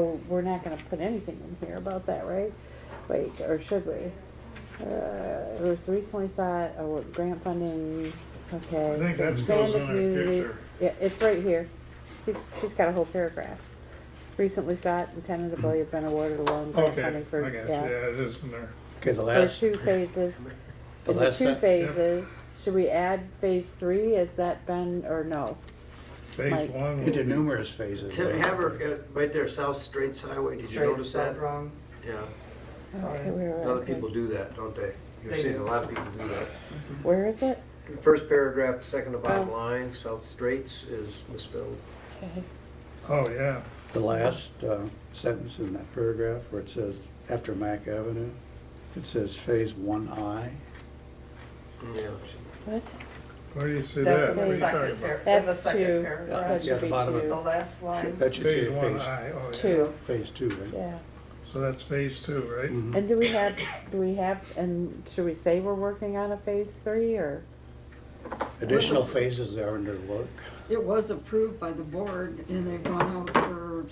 So we're not gonna put anything in here about that, right? Wait, or should we? Uh, it was recently thought, oh, grant funding, okay. I think that goes expand the in our communities. picture. Yeah, it's right here. She's, she's got a whole paragraph. Recently thought and tentatively have been awarded a loan grant Okay, I funding got for, you, yeah, yeah. it is in there. Okay, the For last, two phases. the In the last two sentence. phases, should we add phase three? Has that been, or no? Phase Like- one. It will did be- numerous phases. Can right? have her, uh, right there, South Straits Highway, did you Straight notice spelled that? wrong. Yeah, Sorry. Okay, where a are lot of we? people do that, don't they? You've They seen do. a lot of people do that. Where is it? First paragraph, second to bottom Oh. line, South Straits is misspelled. Okay. Oh, yeah, The last uh, sentence in that paragraph where it says, after Mac Avenue, it says Phase One I. Yeah. What? where do you see That's that? in What are the you second talking par, about? in the That's second two. Yeah, That yeah, should the be bottom of two. The last line. That should say Phase one, Phase, I, oh, yeah. Two, Phase Two, right? yeah. So that's phase two, right? Mhm. And do we have, do we have, and should we say we're working on a phase three or? Additional phases are under work. It was approved by the board and they've gone out for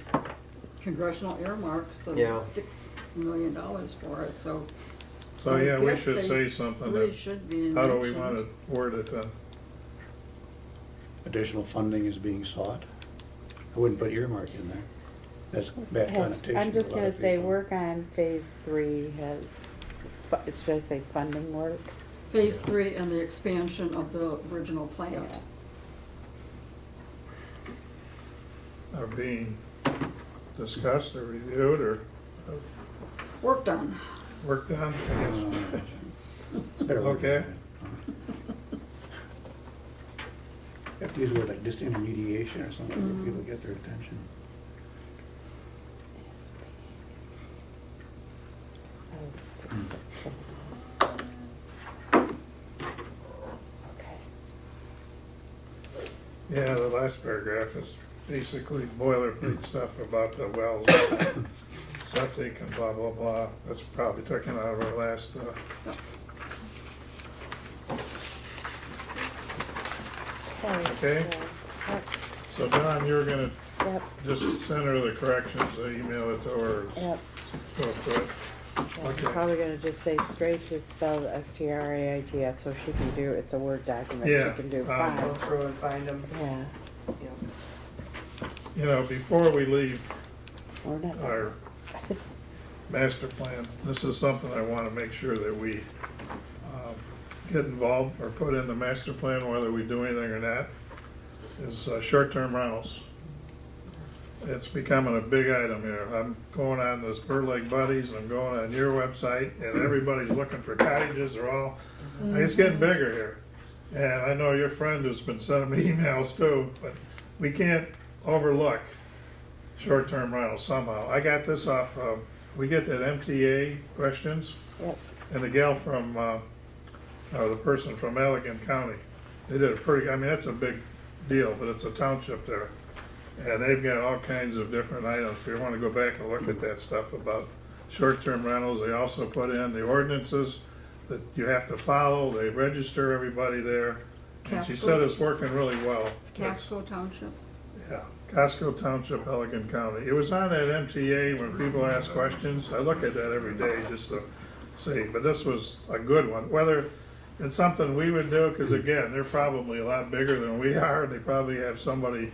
congressional earmarks Yeah. of six million dollars for it, so. So, I yeah, we guess should say phase something. Three that- should be How do we mentioned. want to word it then? Additional funding is being sought. I wouldn't put earmark in there. That's bad Has- connotation. I'm to a just lot gonna of say people. work on phase three has, fu- should I say funding work? Phase three and the expansion of the original plant. Yeah. Are being discussed or reviewed or Worked on. worked on, I guess? Uh, better word than Okay. that. Have to use a word like disintermediation or something, where people get their attention. Oh, Okay. Yeah, the last paragraph is basically boilerplate stuff about the wells, septic and blah, blah, blah. That's probably taken out of our last, uh, Okay. so, yep, so Don, you're gonna Yep, just send her the corrections, uh, email it to her. yep. So, so, Yeah, Okay. I'm probably gonna just say straight is spelled S T R A I T S, so she can do, it's a Word document, Yeah, she can do um, Go five. through and find them. Yeah, You know, before we leave we're not. our master plan, this is something I want to make sure that we um, get involved or put in the master plan, whether we do anything or not, is uh, short-term rentals. It's becoming a big item here. I'm going on this Bird Lake Buddies, I'm going on your website, and everybody's looking for cottages, they're all, it's getting bigger here. And I know your friend has been sending me emails too, but we can't overlook short-term rental somehow. I got this off, uh, we get that MTA questions, Yep, and the gal from, uh, or the person from Allegan County, they did a pretty, I mean, that's a big deal, but it's a township there. And they've got all kinds of different items, if you wanna go back and look at that stuff about short-term rentals, they also put in the ordinances that you have to follow, they register everybody there. And she Casco. said it's working really well. It's Casco Township. Yeah, Casco Township, Pelican County. It was on that MTA when people ask questions. I look at that every day just to see, but this was a good one. Whether it's something we would do, because again, they're probably a lot bigger than we are. They probably have somebody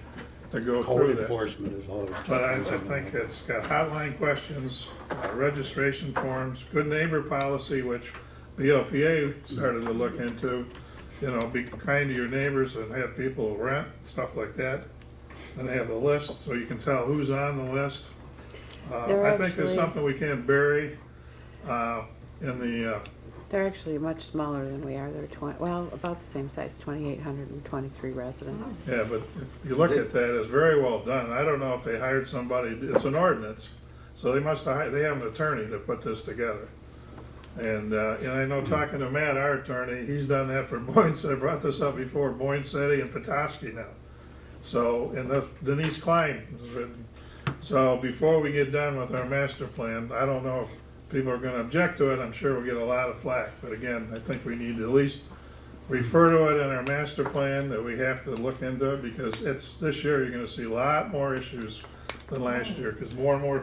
to go through Code that. enforcement is always. tough But I, on I someone think like that. it's got hotline questions, uh, registration forms, good neighbor policy, which the LPA started to look into. You know, be kind to your neighbors and have people rent, stuff like that. And they have a list, so you can tell who's on the list. Uh, They're I think there's actually- something we can't bury, uh, in the, uh, they're actually much smaller than we are, they're twen- well, about the same size, twenty-eight hundred and twenty-three residents. yeah, but if you look at that, it's very well done. I don't know if they hired somebody, it's an ordinance, so they must have, hi- they have an attorney that put this together. And, uh, and I know talking to Matt, our attorney, he's done that for Boyne City, I brought this up before, Boyne City and Petoskey now. So, and that's Denise Klein has written. So before we get done with our master plan, I don't know if people are gonna object to it, I'm sure we'll get a lot of flack. But again, I think we need to at least refer to it in our master plan, that we have to look into it, because it's, this year, you're gonna see a lot more issues than last year, because more and more